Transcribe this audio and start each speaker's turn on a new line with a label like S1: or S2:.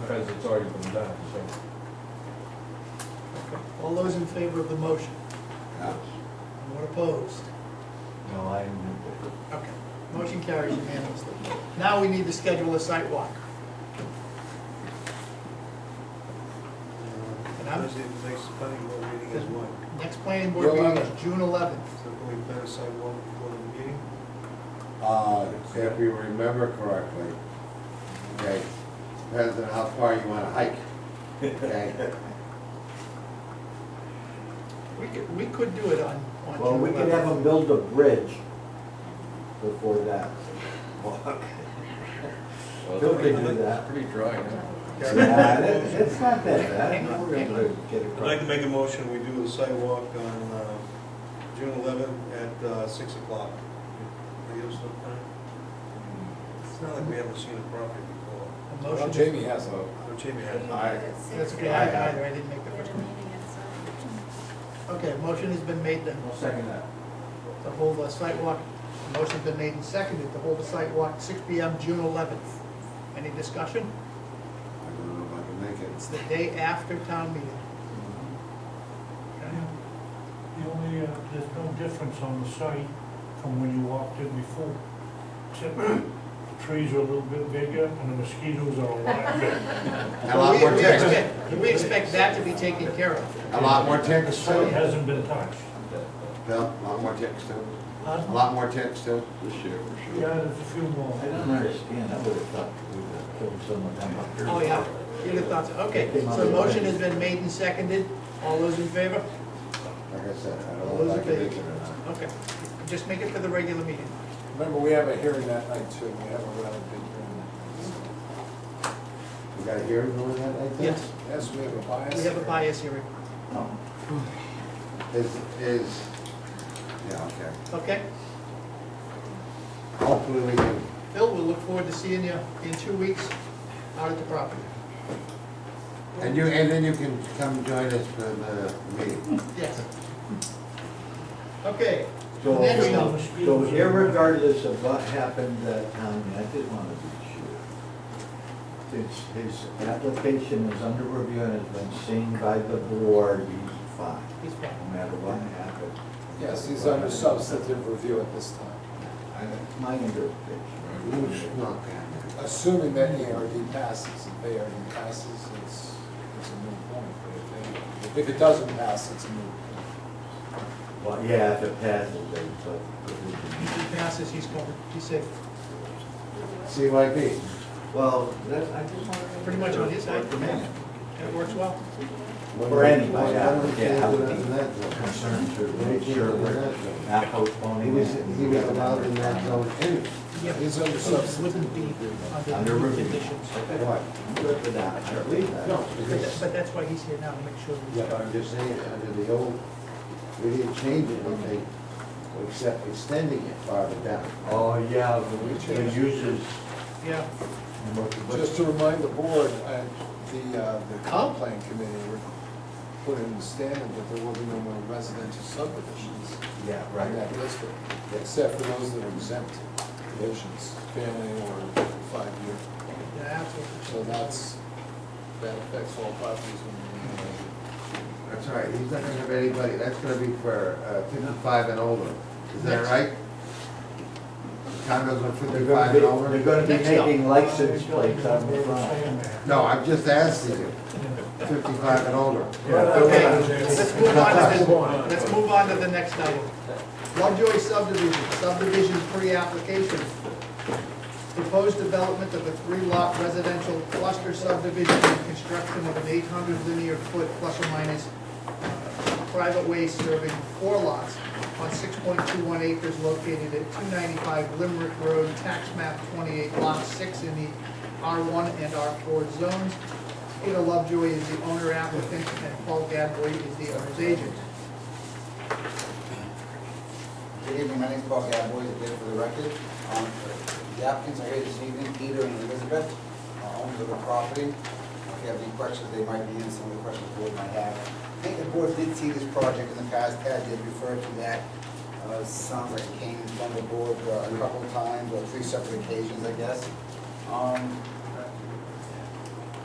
S1: because it's already been done, so.
S2: All those in favor of the motion? Anyone opposed?
S3: No, I am.
S2: Okay, motion carries unanimously. Now we need to schedule a site walk. And I'm-
S4: Thursday, the next planning board meeting is what?
S2: Next planning board meeting is June eleventh.
S4: So can we plan a sidewalk before the meeting?
S5: Uh, if you remember correctly, okay, depends on how far you wanna hike, okay?
S2: We could, we could do it on, on June eleventh.
S3: Well, we could have them build a bridge before that. Bill could do that.
S6: Pretty dry, huh?
S3: Yeah, it- It's not that bad, we're gonna get
S4: I'd like to
S3: across.
S4: make a motion, we do a sidewalk on uh, June 11th at uh, 6 o'clock. Are you still planning? It's not like we haven't seen a property before.
S2: A
S6: Well,
S2: motion.
S6: Jamie has a,
S4: So Jamie had
S2: That's okay, I, I, I didn't make the first one. Okay, motion has been made to,
S3: I'll second that.
S2: to hold a site walk. Motion's been made and seconded to hold a site walk, six P M, June eleventh. Any discussion?
S5: I don't know if I can make
S2: It's
S5: it.
S2: the day after town meeting. Okay?
S7: The only, uh, there's no difference on the site from when you walked in before. Except the trees are a little bit bigger and the mosquitoes are a lot bigger.
S5: A lot more
S2: We- we
S5: ticks,
S2: expect- We expect that to be taken care of.
S5: a lot more
S7: The
S5: ticks
S7: site
S5: too,
S7: hasn't been touched.
S5: Bill, a lot more ticks too,
S7: Huh?
S5: a lot more ticks too.
S6: this year,
S7: Yeah,
S6: for sure.
S7: there's a few more.
S3: I don't understand, I would have thought we would have killed someone down here.
S2: Oh, yeah, you'd have thought so. Okay, so the motion has been made and seconded. All those in favor?
S5: Like I said, I don't know if I can make it or not.
S2: Okay, just make it for the regular meeting.
S6: Remember, we have a hearing that night too, we have a rather big hearing.
S5: You got a hearing going that night then?
S2: Yes.
S6: Yes, we have a bias.
S2: We have a bias hearing,
S3: No.
S5: Is, is, yeah, okay.
S2: okay?
S5: Hopefully we can,
S2: Bill, we'll look forward to seeing you in two weeks out at the property.
S5: and you, and then you can come join us for the meeting.
S2: Yes. Okay,
S3: So,
S2: Next
S7: up.
S3: so irregardless of what happened that time, I did want to be sure. His, his application is under review and has been seen by the board, he's fine,
S2: he's
S3: no
S2: fine.
S3: matter what happened.
S6: Yes, he's under substantive review at this time,
S3: I- That's my
S5: Who's
S3: interpretation.
S5: not down there?
S6: assuming that ARD passes, if ARD passes, it's, it's a moot point, but if, they- if it doesn't pass, it's a moot point.
S3: Well, yeah, if it passes, then, but.
S2: If he passes, he's covered, he's safe,
S5: CYP.
S3: Well, that's, I just want to.
S2: Pretty much on his side.
S3: For me.
S2: that works well.
S3: For anybody, yeah, I would be
S5: He
S3: concerned to make sure we're not postponing
S5: was,
S3: it.
S5: he was allowed in that zone anyway.
S2: Yeah,
S6: He's under
S2: it
S6: substantive.
S2: wouldn't be
S3: Under
S2: under the
S3: review.
S2: conditions.
S5: What?
S3: Good for that, I believe that.
S5: No,
S2: But that-
S5: because,
S2: but that's why he's here now, to make sure. we-
S5: yeah, but I'm just saying, under the old, we didn't change it, okay, except extending it farther down.
S3: Oh, yeah, the the uses.
S2: Yeah,
S3: and what- what-
S6: Just to remind the board, uh, the, uh, the comp plan committee put in the standard that there will be no more residential subdivisions
S3: Yeah,
S6: in
S3: right.
S6: that district, except for those that are exempt divisions, family or five-year.
S2: yeah, absolutely.
S6: So that's, that affects all properties in
S5: That's all right, he's not gonna have anybody, that's gonna be for uh, fifty-five and older, is that right? Condos are
S3: They're gonna
S5: fifty-five
S3: be,
S5: and
S3: they're
S5: older?
S3: gonna be
S2: Next up.
S3: making license plates on the front.
S7: Saying
S5: No, I'm just asking you, fifty-five and older.
S2: Okay,
S7: that.
S2: let's move on to the, let's move on to the next item. Lovejoy subdivision, subdivision pre-application. Proposed development of a three-lot residential cluster subdivision and construction of an eight hundred linear foot plus or minus private way serving four lots on six point two one acres located at two ninety-five Limerick Road, tax map twenty-eight, lot six in the R one and R four zones. Peter Lovejoy is the owner applicant and Paul Gadboy is the owner's agent.
S8: Good evening, my name is Paul Gadboy, I'm here for the record. Um, The applicants are here this evening, Peter and Elizabeth, uh, owners of the property. If you have any questions, they might be in, some of the questions the board might have. I think the board did see this project in the past, Ted did refer to that. Uh, Sounds like it came from the board uh, a couple of times, or three separate occasions, I guess. Um,